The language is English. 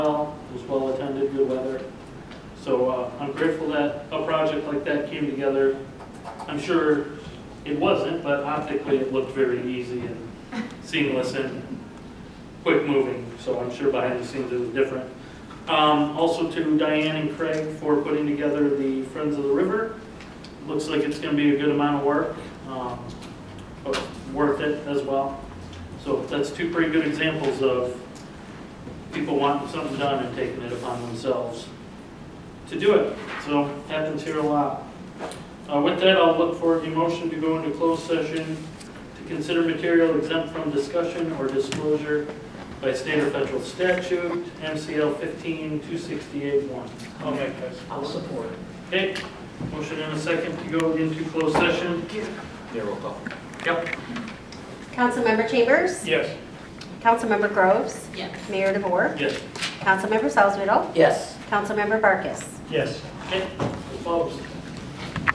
So uh, I'm grateful that a project like that came together. I'm sure it wasn't, but optically it looked very easy and seamless and quick moving. So I'm sure behind the scenes it was different. Um, Also to Diane and Craig for putting together the Friends of the River. Looks like it's going to be a good amount of work, um, but worth it as well. So that's two pretty good examples of people wanting something done and taking it upon themselves to do it. So happens here a lot. Uh, With that, I'll look for a motion to go into closed session to consider material exempt from discussion or disclosure by state or federal statute, MCL 15 268 one I'll make that. I'll support. Okay, motion and a second to go into closed session. Yeah, roll call. Yep. Councilmember Chambers? Yes. Councilmember Groves? Yes. Mayor DeVore? Yes. Councilmember Salzweedl? Yes. Councilmember Barkus? Yes. Okay, opposed.